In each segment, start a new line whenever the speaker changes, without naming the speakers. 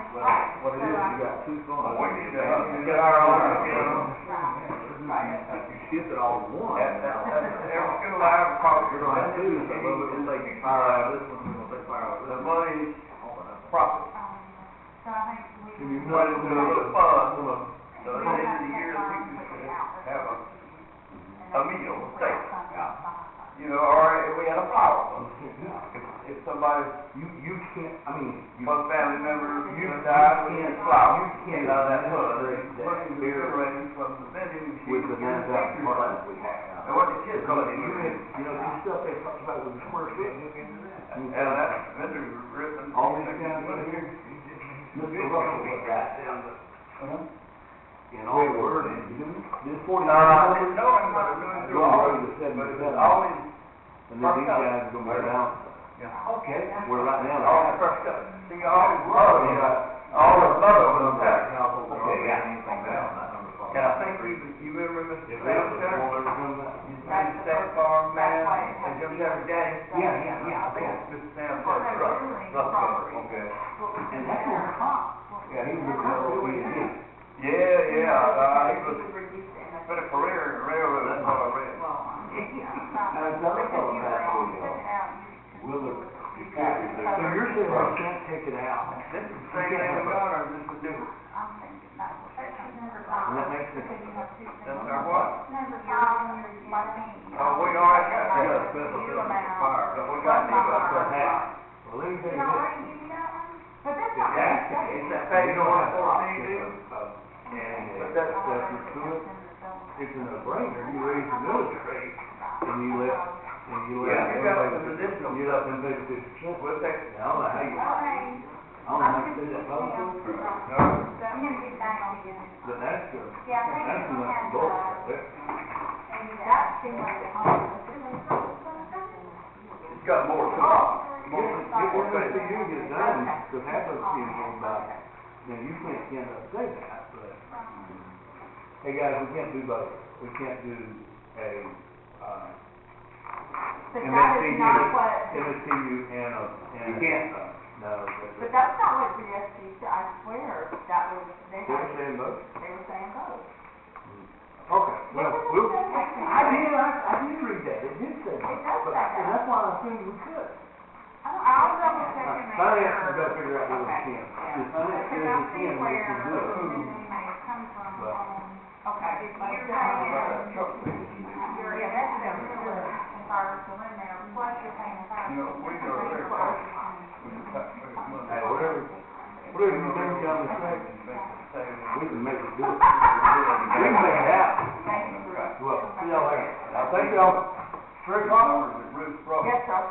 What it is, you got two funds.
We need to help you.
Get our own, you know?
Right.
If you shift it all to one.
That, that, that's, every single item costs you
You're
money.
gonna have two, so we'll, we'll take fire out of this one, we'll take fire out of
The
this one.
money's
All that.
profit.
So I think we.
You
Put it in a little fund, so
we
at the
would have
end of the
to take
year, we
loans
can
to get out of
have a,
the-
a meal, a steak.
Yeah.
You know, or if we had a flower. fund. If, if somebody,
You, you can't, I mean, you.
one family member, you died, we had a flower.
You
Get
can't
out of that fund.
administrate that
Put it in the
here
refrigerator from the vending machine.
With the nine thousand funds we
And
have.
what the kids gonna
Because
do?
you had, you know, you stuff that talks about with the square foot.
And that's vendor ripping.
All these guys in here, Mr. Russell was right. Uh-huh. In all word, this
No,
forty.
I didn't know it, but I'm doing it through all,
Going to
but
seventy-seven.
it's always,
And then these guys are gonna wear it out.
okay,
We're right now.
all
like-
crushed up. See, all the love, you know, all the love of them back. And I think you, you remember Mr. Sam Terry? Mr. Sam Farm Man, and Jim Jeffrey Daddy?
Yeah, yeah, yeah,
I
I
think
think.
it's Mr. Sam
Well,
Terry,
they're
right,
really
Russell,
property.
okay.
And that's what it Yeah, he was a real OPM.
Yeah, yeah, uh, he was,
reduced in the.
been a career in railroad, that's all I read.
another fellow passed away, though. Willard. So you're saying I can't take it out?
This is the same name we got, or this is different?
I'm thinking that was. Number
And
five.
that makes
Because you
sense.
have two things.
That's our what?
Number five, my name.
Oh, we already got that.
You
Yeah,
special
amount.
assessment fire.
But we got to do it for half.
Well, let me tell
You know, I didn't
you this.
give you that one, but that's not. what I'm
Yeah,
saying.
isn't that
We
page
don't
one
have
fourteen,
options
dude?
of- of- And
But
if
that's
that stuff is to it, it's a no-brainer. You raise the military and you let, and you let.
Yeah, you got some
everybody-
additional-
You let them take fifty percent.
We'll take,
Now, I don't know how you,
Well, hey,
I don't know how you do that possible,
no,
I'm gonna get back on you.
but that's good.
Yeah, I think
That's
you
enough
have,
for both.
uh,
That-
maybe that seemed like a home.
it's got more to it.
Oh.
Get one of those things you get done, because half those kids won't buy it. Now, you can't, can't say that, but, hey, guys, we can't do both. We can't do a, uh,
But that is not what,
MSTU and a, and.
You can't.
uh, No,
but that's
that's,
not what the SBC, I swear, that was, they
they're
had,
saying both?
they were saying both.
Okay, well, we'll, I
I
did, I, I did read that, it did say that.
It does
but-
say that.
And that's why I assumed we could.
I'll double check and make sure.
Finance has got to figure out whether we
Okay.
can.
Yeah.
If finance says we can, we can do it.
um, Okay. If you're paying, your investment is ours to lend them, plus you're paying five.
You know, we are very close. We can cut through money.
Hey, whatever, whatever you think down the track,
Make the savings.
we can make it do it. We can make it out. Well, see y'all later. Now, thank y'all.
Three dollars at Ruth's Rock.
Yes, sir.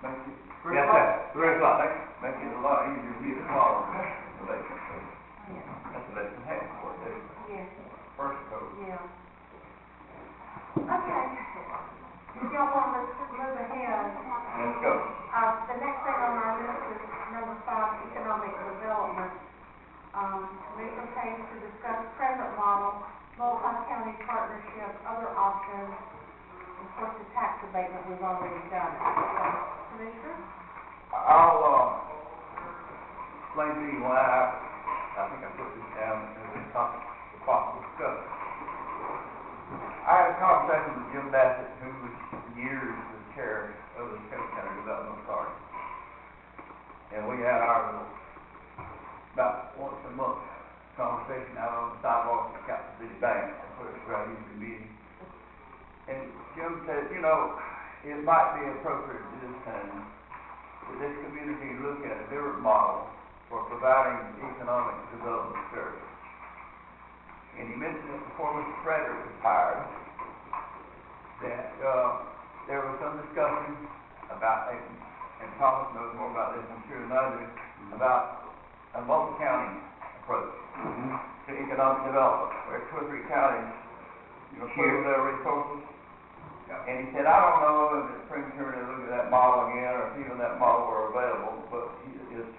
Make it three
Yes, sir.
dollars.
Three o'clock.
Make, make it a lot easier to get a flower. That's what they can have for it,
Yes,
first coat.
yeah. Okay. If y'all want to move ahead,
Let's go.
Uh, the next thing on our list is number five, economic development. Um, make a change to discuss present model, multi-county partnership, other options. Of course, the tax abatement we've already done. So, Commissioner?
I'll, uh, explain to you why I, I think I put this down as a topic for possible discussion. I had a conversation with Jim Bassett, who was years the chair of the Kennesaw County Development Authority. And we had our little, about once a month, conversation out on the sidewalk at Capital City Bank, that's where it's right, usually meeting. And Jim said, you know, it might be appropriate at this time that this community look at a different model for providing economic development service. And he mentioned it before Mr. Frederick was hired, that, uh, there was some discussion about, and and Thomas knows more about this, I'm sure, than I do, about a multi-county approach to economic development, where two or three counties, you know, pool their resources. And he said, I don't know if it's premature to look at that model again, or if even that model were available, but he- his Uh,